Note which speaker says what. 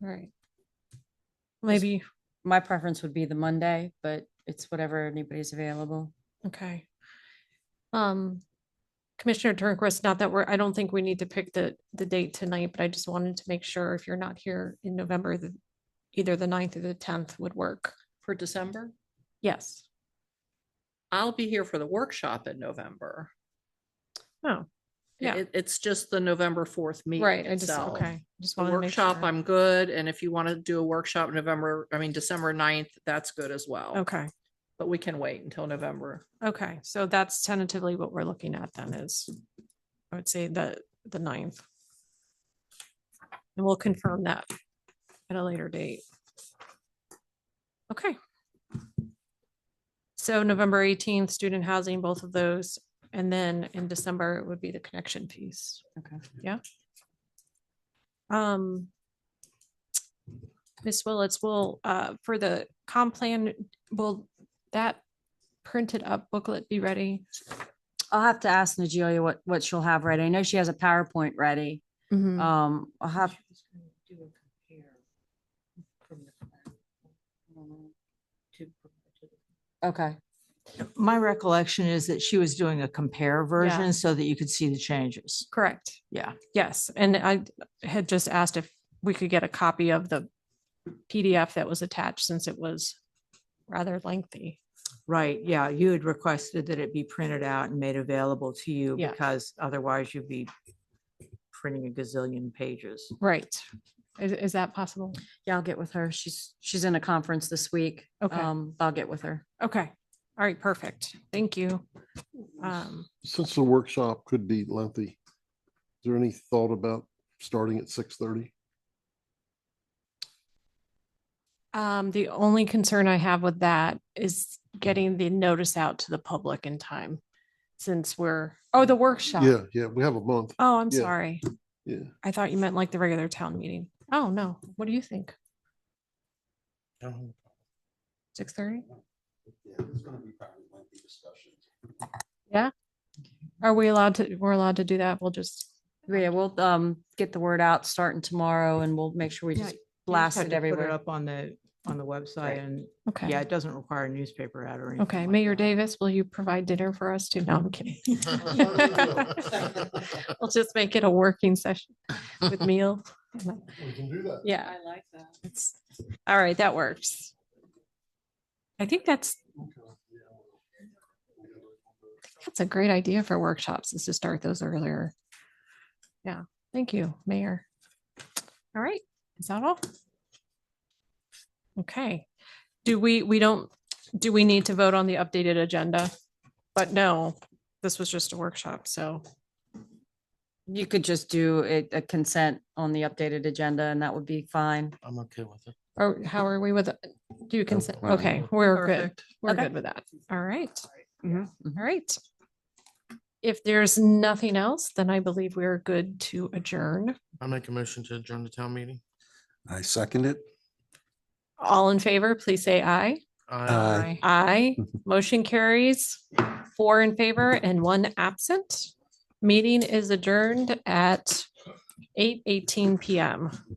Speaker 1: Right. Maybe,
Speaker 2: My preference would be the Monday, but it's whatever anybody's available.
Speaker 1: okay. Um, Commissioner Turnquist, not that we're, I don't think we need to pick the, the date tonight, but I just wanted to make sure if you're not here in November, the either the ninth or the tenth would work.
Speaker 3: for December.
Speaker 1: Yes.
Speaker 3: I'll be here for the workshop in November.
Speaker 1: Oh, yeah.
Speaker 3: It, it's just the November fourth
Speaker 1: right.
Speaker 3: meeting
Speaker 1: I just,
Speaker 3: itself.
Speaker 1: okay. Just
Speaker 3: The
Speaker 1: wanted to make
Speaker 3: workshop,
Speaker 1: sure.
Speaker 3: I'm good. And if you want to do a workshop November, I mean, December 9th, that's good as well.
Speaker 1: Okay,
Speaker 3: But we can wait until November.
Speaker 1: okay. So that's tentatively what we're looking at then is, I would say the, the ninth. And we'll confirm that at a later date. Okay. So November eighteenth, student housing, both of those. And then in December, it would be the connection piece.
Speaker 2: Okay.
Speaker 1: Um. Ms. Willetts will, uh, for the comp plan, will that printed up booklet be ready?
Speaker 2: I'll have to ask Nigelia what, what she'll have ready. I know she has a PowerPoint ready.
Speaker 1: Mhm.
Speaker 2: Um, I'll have.
Speaker 4: She was gonna do a compare from the plan to- to the-
Speaker 2: Okay.
Speaker 4: My recollection is that she was doing a compare version so that you could see the changes.
Speaker 1: Correct.
Speaker 4: Yeah.
Speaker 1: Yes, and I had just asked if we could get a copy of the PDF that was attached since it was rather lengthy.
Speaker 4: Right, yeah, you had requested that it be printed out and made available to you
Speaker 1: Yeah.
Speaker 4: because otherwise you'd be printing a gazillion pages.
Speaker 1: Right. Is, is that possible?
Speaker 2: Yeah, I'll get with her. She's, she's in a conference this week.
Speaker 1: Okay.
Speaker 2: Um, I'll get with her.
Speaker 1: Okay. All right, perfect. Thank you. Um,
Speaker 5: Since the workshop could be lengthy, is there any thought about starting at six thirty?
Speaker 1: Um, the only concern I have with that is getting the notice out to the public in time. Since we're, oh, the workshop.
Speaker 5: Yeah, yeah, we have a month.
Speaker 1: Oh, I'm
Speaker 5: Yeah.
Speaker 1: sorry.
Speaker 5: Yeah.
Speaker 1: I thought you meant like the regular town meeting. Oh, no. What do you think? Six thirty?
Speaker 6: Yeah, there's gonna be probably lengthy discussions.
Speaker 1: Are we allowed to, we're allowed to do that? We'll just,
Speaker 2: Yeah, we'll, um, get the word out starting tomorrow and we'll make sure we
Speaker 4: Yeah,
Speaker 2: just
Speaker 4: you
Speaker 2: blast
Speaker 4: Had
Speaker 2: it
Speaker 4: to put
Speaker 2: everywhere.
Speaker 4: Up on the, on the website
Speaker 2: Right.
Speaker 4: and, yeah,
Speaker 1: okay.
Speaker 4: it doesn't require a newspaper ad or anything.
Speaker 1: Okay,
Speaker 4: like
Speaker 1: Mayor
Speaker 4: that.
Speaker 1: Davis, will you provide dinner for us too? No, I'm kidding. We'll just make it a working session with meal.
Speaker 5: We can do that.
Speaker 1: Yeah. I like that. It's, all right, that works. I think that's, that's a great idea for workshops is to start those earlier. Yeah, thank you, Mayor. All right, is that all? Okay, do we, we don't, do we need to vote on the updated agenda? But no, this was just a workshop, so,
Speaker 2: You could just do it, a consent on the updated agenda and that would be fine.
Speaker 6: I'm okay with it.
Speaker 1: or how are we with, do you consent?
Speaker 6: fine.
Speaker 1: Okay, we're good.
Speaker 4: Perfect.
Speaker 1: We're
Speaker 2: Okay.
Speaker 1: good with that. All right.
Speaker 2: Mhm.
Speaker 1: All right. If there's nothing else, then I believe we are good to adjourn.
Speaker 7: I make a motion to adjourn the town meeting.
Speaker 6: I second it.
Speaker 1: All in favor, please say aye.
Speaker 5: Uh,
Speaker 7: I
Speaker 1: Aye. Motion carries four in favor and one absent. Meeting is adjourned at eight eighteen PM.